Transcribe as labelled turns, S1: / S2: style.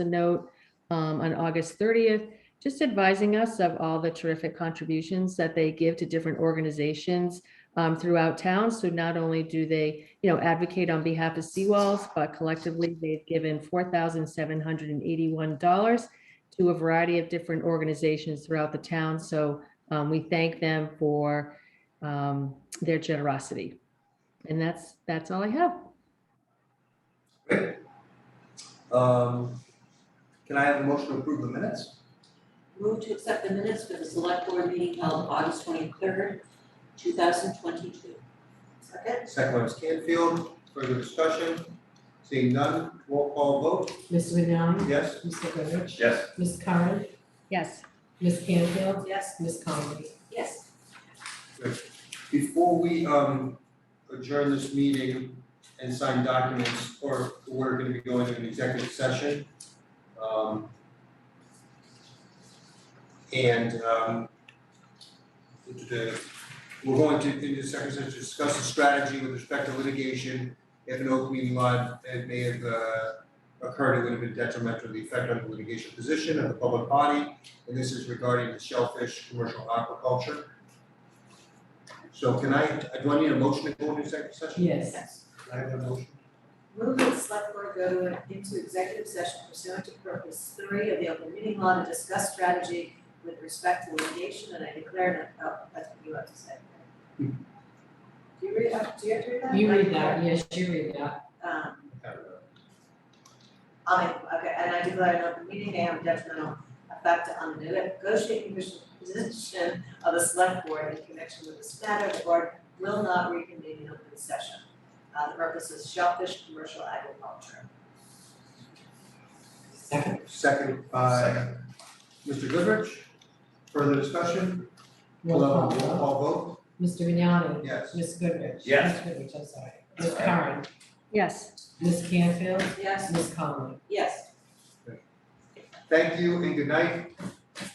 S1: a note um, on August 30th, just advising us of all the terrific contributions that they give to different organizations um, throughout town. So not only do they, you know, advocate on behalf of Seawalls, but collectively they've given $4,781 to a variety of different organizations throughout the town. So um, we thank them for um, their generosity. And that's, that's all I have.
S2: Great. Um, Can I have a motion to approve the minutes?
S3: Move to accept the minutes for the select board meeting held August twenty-third, two thousand twenty-two. Second?
S2: Second by Ms. Canfield, further discussion? Seeing none, roll call vote,
S4: Ms. Vignani?
S2: yes?
S4: Mr. Goodrich?
S2: Yes.
S4: Ms. Curran?
S1: Yes,
S4: Ms. Canfield?
S3: Yes.
S4: Ms. Conley?
S3: Yes.
S2: Before we um, adjourn this meeting and sign documents, or we're gonna be going to an executive session. um, And um, the- the- we're going to, in the second session, discuss the strategy with respect to litigation if an open meeting law that may have uh, occurred it would have been detrimental to the effect on the litigation position of the public body. And this is regarding the shellfish commercial aquaculture. So can I, do I need a motion to go into executive session?
S4: Yes.
S2: Can I have a motion?
S5: Move that the select board go to- into executive session pursuant to purpose three of the open meeting law to discuss strategy with respect to litigation, and I declare, an- oh, that's what you have to say. Do you read, uh, do you have to read that?
S4: You read that, yes, you read that.
S5: Um,
S2: I don't know.
S5: I mean, okay, and I declare an open meeting may have detrimental effect on the negotiating position of the select board in connection with this matter, the board will not reconvene in open session. Uh, the purpose is shellfish commercial agriculture.
S4: Second.
S2: Second by Mr. Goodrich. Further discussion?
S4: Roll
S2: Hello, Roll
S4: call vote.
S2: call
S4: Mr.
S2: vote,
S4: Vignani?
S2: yes.
S4: Ms. Goodrich?
S6: Yes.
S4: Ms. Goodrich, I'm sorry. Ms. Curran?
S1: yes.
S4: Ms. Canfield?
S5: Yes,
S4: Ms. Conley?
S5: yes.
S2: Thank you and good night.